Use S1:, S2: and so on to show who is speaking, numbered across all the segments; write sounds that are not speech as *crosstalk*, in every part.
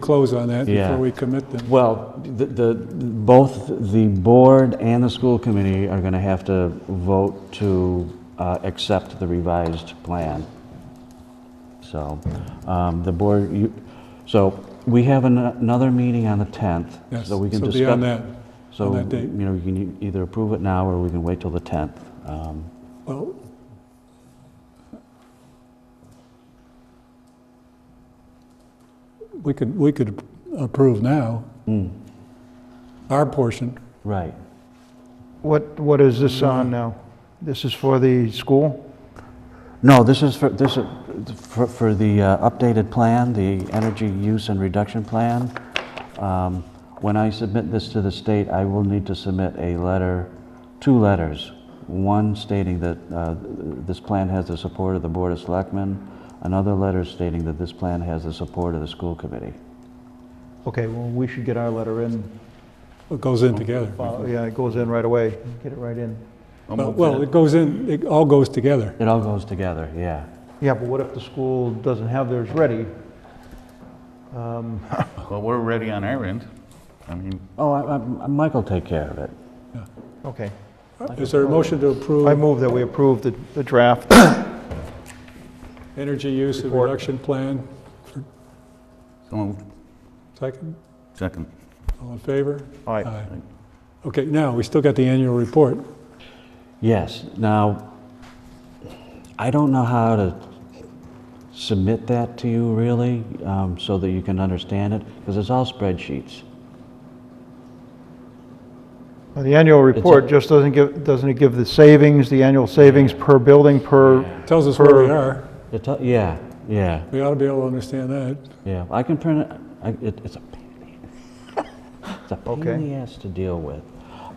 S1: close on that
S2: Yeah.
S1: before we commit them.
S2: Well, the, the, both the board and the school committee are gonna have to vote to, uh, accept the revised plan. So, um, the board, you, so we have an- another meeting on the tenth.
S1: Yes,
S2: So we can
S1: be on
S2: discuss.
S1: that.
S2: So,
S1: on
S2: you
S1: that date.
S2: know, you can either approve it now or we can wait till the tenth. Um,
S1: Well, we could, we could approve now,
S2: Hmm.
S1: our portion.
S2: right.
S3: What, what is this on now? This is for the school?
S2: No, this is for, this is for, for the uh, updated plan, the energy use and reduction plan. Um, When I submit this to the state, I will need to submit a letter, two letters. One stating that uh, this plan has the support of the Board of Selectmen, another letter stating that this plan has the support of the school committee.
S3: Okay, well, we should get our letter in.
S1: It goes in together.
S3: Follow- Yeah, it goes in right away. Get it right in.
S1: Well- Well, it goes in, it all goes together.
S2: It all goes together, yeah.
S3: Yeah, but what if the school doesn't have theirs ready? Um,
S4: Well, we're ready on our end. I mean,
S2: Oh, I- I- Mike will take care of it.
S3: Okay.
S1: Is there a motion to
S3: I
S1: approve
S3: move that we approve the, the draft.
S1: energy use and
S3: Report.
S1: reduction plan?
S4: someone,
S1: Second,
S4: second.
S1: all in favor?
S3: Aye.
S1: Okay, now, we still got the annual report.
S2: Yes. Now, I don't know how to submit that to you really, um, so that you can understand it, because it's all spreadsheets.
S3: Well, The annual report just doesn't give, doesn't it give the savings, the annual savings per building, per,
S1: Tells us where we are.
S2: It t- yeah, yeah,
S1: We ought to be able to understand that.
S2: yeah. I can print it. I, it it's a pain. *laughs* it's a pain in
S3: Okay.
S2: the ass to deal with.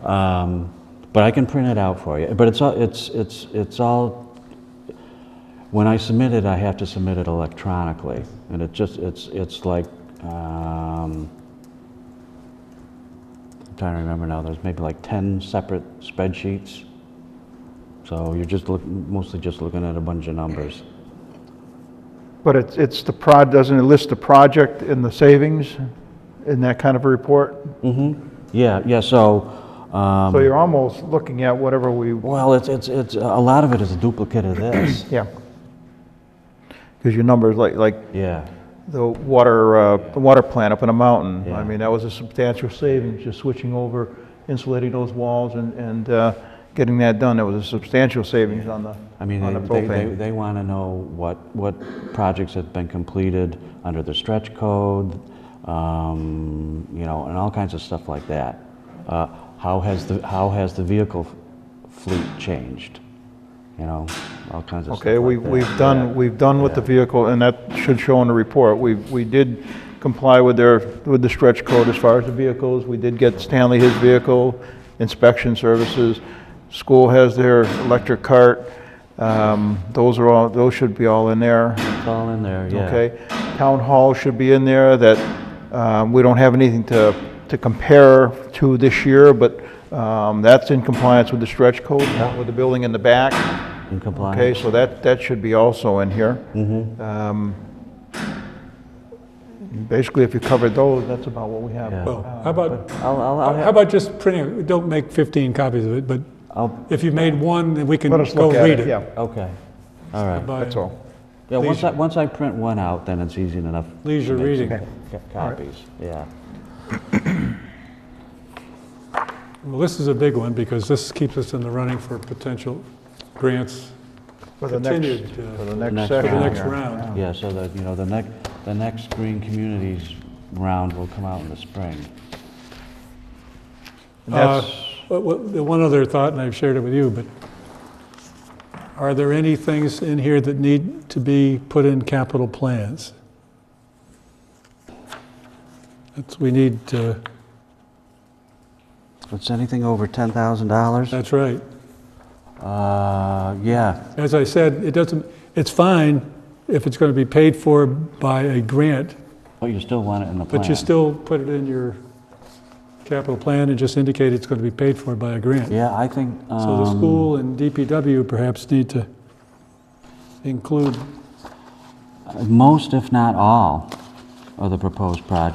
S2: Um, but I can print it out for you. But it's all it's it's it's all. When I submit it, I have to submit it electronically, and it just it's it's like. Um, I'm trying to remember now. There's maybe like ten separate spreadsheets. So you're just look, mostly just looking at a bunch of numbers.
S3: but it's, it's the prod, doesn't it list the project and the savings in that kind of a report?
S2: Mm-hmm. Yeah, yeah, so, um,
S3: So you're almost looking at whatever we
S2: well, it's, it's, it's, a lot of it is a duplicate of
S3: *clears throat*
S2: this.
S3: Yeah. Because your numbers, like, like
S2: Yeah,
S3: the water, uh, the water plant up in a mountain, I
S2: Yeah.
S3: mean, that was a substantial savings, just switching over, insulating those walls and, and uh, getting that done, that was a substantial savings on the,
S2: I mean,
S3: on the
S2: they, they- they,
S3: propane.
S2: they wanna know what, what projects have been completed under the stretch code, um, you know, and all kinds of stuff like that. Uh, how has the, how has the vehicle f- fleet changed? You know, all kinds of stuff like that.
S3: Okay, we, we've done, we've done with the vehicle, and that should show in the report, we, we did comply with their, with the stretch code as far as the vehicles, we did get Stanley his vehicle, inspection services, school has their electric cart, um, those are all, those should be all in there.
S2: It's all in there, yeah.
S3: Okay, town hall should be in there, that, um, we don't have anything to, to compare to this year, but, um, that's in compliance with the stretch code, not with the building in the back.
S2: In compliance.
S3: Okay, so that, that should be also in here. Um, Basically, if you cover those, that's about what we
S2: Yeah.
S3: have.
S1: Well, how about,
S2: I'll, I'll, I'll,
S1: how
S2: have-
S1: about just printing, don't make 15 copies of it, but
S2: I'll,
S1: if you made one, then we can
S3: Let us look
S1: go
S3: at
S1: read
S3: it,
S1: it.
S3: yeah,
S2: okay, all right.
S1: by
S3: that's all.
S2: Yeah, once
S1: Leisure.
S2: I, once I print one out, then it's easy enough. to
S1: Leisure
S2: make some
S1: reading.
S2: co- Copies, yeah.
S1: Well, this is a big one because this keeps us in the running for potential grants
S3: For the next,
S1: continued
S3: for
S1: uh,
S3: the next
S2: next
S1: for
S3: section.
S1: the next
S3: here.
S1: round.
S2: Yeah, so that, you know, the next, the next Green Communities round will come out in the spring.
S3: And that's-
S1: But Uh, what- the One other thought, and I've shared it with you, but are there any things in here that need to be put in capital plans? That's, we need, to-
S2: If it's anything over ten thousand dollars,
S1: that's right.
S2: uh, yeah,
S1: As I said, it doesn't, it's fine if it's going to be paid for by a grant,
S2: but you still want it in the plan.
S1: but you still put it in your capital plan and just indicate it's going to be paid for by a grant.
S2: Yeah, I think, um.
S1: So the school and DPW perhaps need to include
S2: um, Most, if not all, of the proposed projects